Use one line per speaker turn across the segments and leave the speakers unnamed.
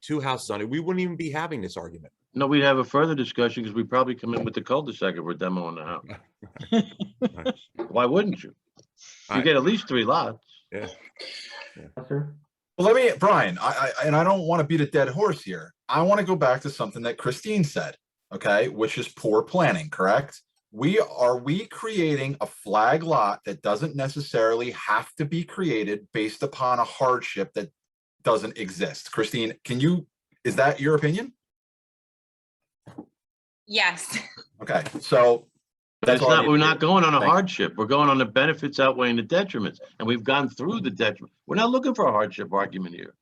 two houses on it, we wouldn't even be having this argument.
No, we'd have a further discussion because we'd probably come in with the cul-de-sac if we're demoing the house. Why wouldn't you? You
Right.
get at least three lots.
Well, let me, Brian, I, I, and I don't want to beat a dead horse here. I want to go back to something that Christine said, okay, which is poor planning, correct? We, are we creating a flag lot that doesn't necessarily have to be created based upon a hardship that doesn't exist? Christine, can you, is that your opinion?
Yes,
Okay, so
But
That's
it's
all I
not,
need
we're
to
not
hear.
going on a
Thank you.
hardship. We're going on the benefits outweighing the detriments, and we've gone through the detriment. We're not looking for a hardship argument here.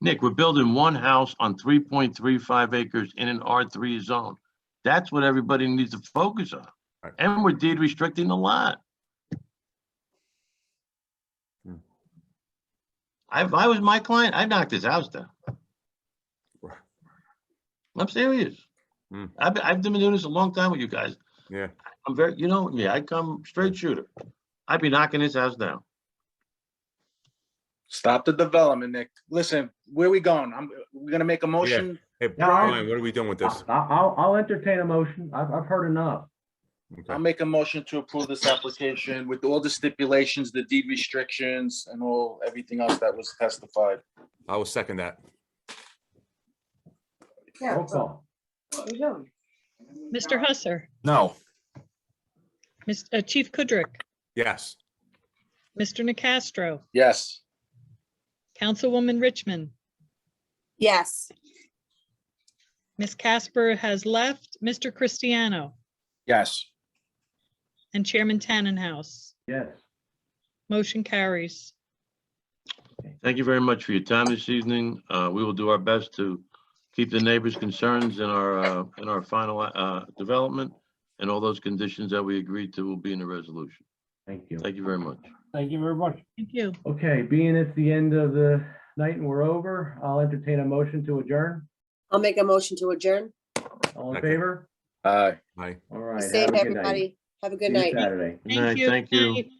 Nick, we're building one house on three point three five acres in an R three zone. That's what everybody needs to focus on.
Right.
And we're deed restricting the lot.
Hmm.
I- If I was my client, I'd knock this house down.
Right.
I'm serious.
Hmm.
I've, been- I've been doing this a long time with you guys.
Yeah.
I'm very, you know me, I come straight shooter. I'd be knocking this house down.
Stop the development, Nick. Listen, where we going? I'm, we're gonna make a motion.
Hey,
No, I-
Brian, what are we doing with
I-
this?
I- I'll, I'll entertain a motion. I've, I've heard enough.
Okay.
I'll make a motion to approve this application with all the stipulations, the deed restrictions and all, everything else that was testified.
I will second that.
Roll call.
Mr. Husser,
no,
Mis- uh, Chief Kudrick,
Yes.
Mr. Nacastro,
Yes,
Councilwoman Richmond,
yes,
Ms. Casper has left, Mr. Cristiano,
yes.
and Chairman Tannenhouse.
Yes.
Motion carries.
Thank you very much for your time this evening. Uh, we will do our best to keep the neighbors' concerns in our, uh, in our final, uh, development. And all those conditions that we agreed to will be in the resolution.
Thank you.
Thank you very much.
Thank you very much.
Thank you.
Okay, being it's the end of the night and we're over, I'll entertain a motion to adjourn.
I'll make a motion to adjourn.
All in
Second.
favor?
Aye.
Bye.
All right. have
Safe,
a good night.
everybody. Have a
See
good
you
night.
Saturday.
Good night. Thank you.
Night.